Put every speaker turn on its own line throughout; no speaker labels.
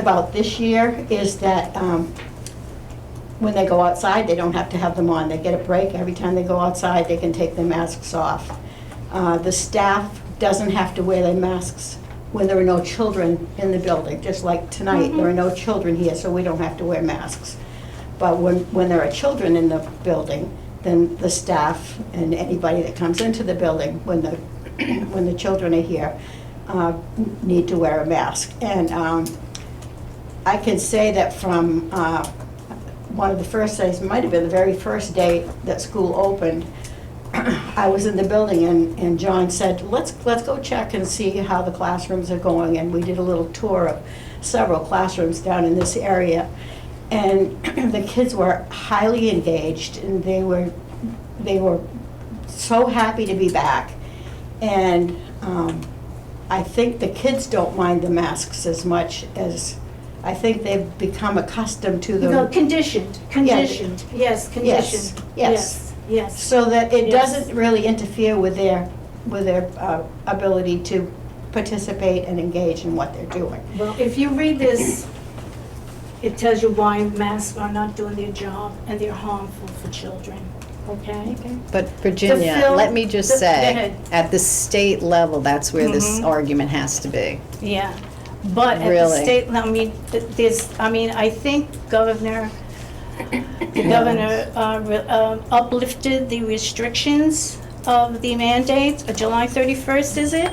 about this year is that um, when they go outside, they don't have to have them on. They get a break. Every time they go outside, they can take their masks off. Uh, The staff doesn't have to wear their masks when there are no children in the building. Just like tonight, there are no children here, so we don't have to wear masks. But when, when there are children in the building, then the staff and anybody that comes into the building when the, when the children are here, uh, need to wear a mask. And um, I can say that from uh, one of the first days, might have been the very first day that school opened, I was in the building and, and John said, let's, let's go check and see how the classrooms are going. And we did a little tour of several classrooms down in this area. And the kids were highly engaged and they were, they were so happy to be back. And um, I think the kids don't mind the masks as much as, I think they've become accustomed to them.
No, conditioned, conditioned, yes, conditioned.
yes.
Yes,
So that it
Yes.
doesn't really interfere with their, with their uh, ability to participate and engage in what they're doing.
well, if you read this, it tells you why masks are not doing their job and they're harmful for children, okay?
But Virginia,
fill-
let me just
the-
say,
the-
at the state level, that's where this
Mhm.
argument has to be.
Yeah, but at the
Really?
state, I mean, th- there's, I mean, I think Governor, the governor uh, re- um, uplifted the restrictions of the mandates, uh, July 31st, is it?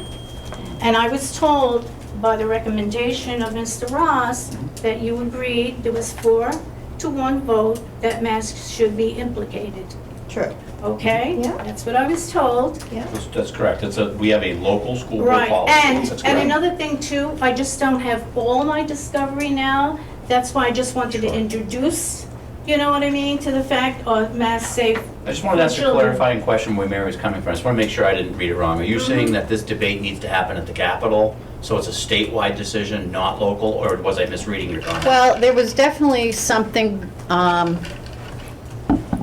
And I was told by the recommendation of Mr. Ross that you agreed, there was four to one vote, that masks should be implicated,
True.
okay?
Yeah.
That's what I was told.
That's- That's correct. It's a, we have a local school board
Right,
policy.
and,
That's
and
correct.
another thing too, I just don't have all my discovery now. That's why I just wanted to
Sure.
introduce, you know what I mean, to the fact of mass safe.
I just wanted to ask a
children.
clarifying question where Mary's coming from. I just want to make sure I didn't read it wrong. Are you
Mm-hmm.
saying that this debate needs to happen at the Capitol? So it's a statewide decision, not local, or was I misreading your comment?
Well, there was definitely something, um,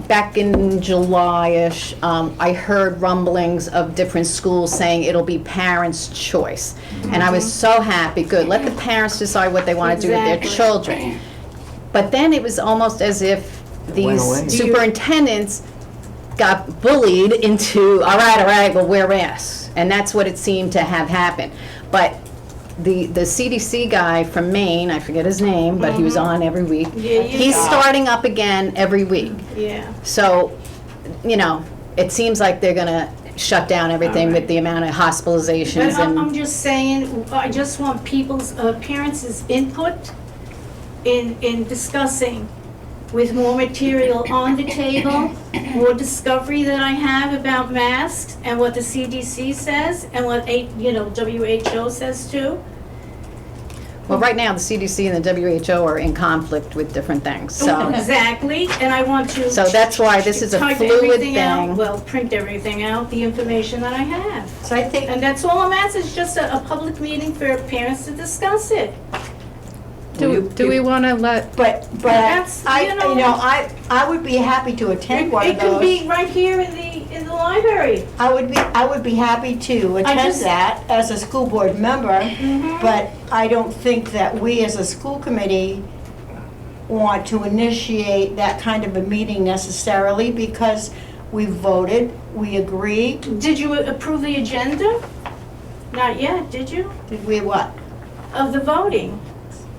back in July-ish, um, I heard rumblings of different schools saying it'll be parents' choice. And I was so happy, good, let the parents decide what they want to do with their
Exactly.
children. But then it was almost as if these superintendents got bullied into, all right, all right, well, wear masks. And that's what it seemed to have happened. But the, the CDC guy from Maine, I forget his name, but he was on every week.
Yeah, you
He's
got-
starting up again every week.
Yeah,
So, you know, it seems like they're gonna shut down everything with the amount of
but
hospitalizations
I'm, I'm
and,
just saying, I just want people's, uh, parents' input in, in discussing with more material on the table, more discovery that I have about masks and what the CDC says and what, A- you know, WHO says too.
well, right now, the CDC and the WHO are in conflict with different things, so.
Exactly, and I want to.
So that's why this is a
type
fluid
everything out,
thing.
Well, print everything out, the information that I have.
So I think,
And that's all I'm asking, is just a, a public meeting for parents to discuss it.
Do, do we want to let,
but, but
That's,
I,
you know-
you know, I, I would be happy to attend one
It
of
could
those.
be right here in the, in the library.
I would be, I would be happy to attend
just- Mm-hmm.
that as a school board member. But I don't think that we as a school committee want to initiate that kind of a meeting necessarily because we voted, we agreed,
Did you approve the agenda? Not yet, did you?
did we what?
Of the voting?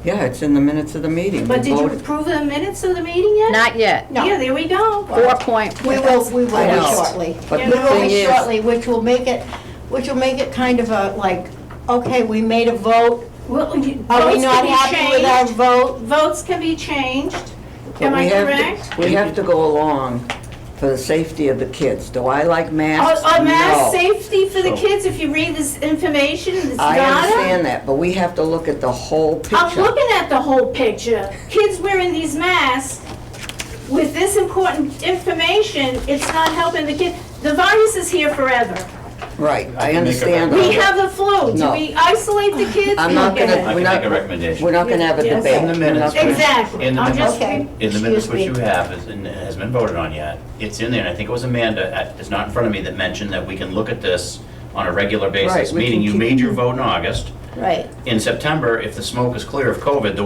Yeah, it's in the minutes of the meeting.
But
We
did you
voted.
approve the minutes of the meeting yet?
Not yet,
No.
Yeah, there we go.
four point.
We will, we
I
will
know.
shortly.
But
We
the
will
thing
be
is-
shortly, which will make it, which will make it kind of a, like, okay, we made a vote,
Well, you-
are we
votes can
not
be
happy with our
changed.
vote?
Votes can be changed.
But
Am
we
I
have to-
correct?
We have to go along for the safety of the kids. Do I like masks?
Oh, oh, mass
No.
safety for the
So-
kids, if you read this information, this
I
data.
understand that, but we have to look at the whole
I'm
picture.
looking at the whole picture. Kids wearing these masks, with this important information, it's not helping the kid. The virus is here forever.
Right,
I
I
can make a
understand.
We
that.
have the flu. Do
No.
we isolate the kids?
I'm not
Look at
gonna-
I
it.
can
we're
make
not-
a
We're
recommendation.
not gonna have a
Yes.
debate.
In the
We're not
minutes,
gonna-
Exact-
Exactly.
In the
I'm just
Okay.
re-
In the minutes, which you
Excuse me.
have, is, and has been voted on yet, it's in there, and I think it was Amanda, uh, it's not in front of me, that mentioned that we can look at this on a regular
Right,
basis,
we
meaning
can
you
keep-
made your vote in August.
Right.
In September, if the smoke is clear of COVID, the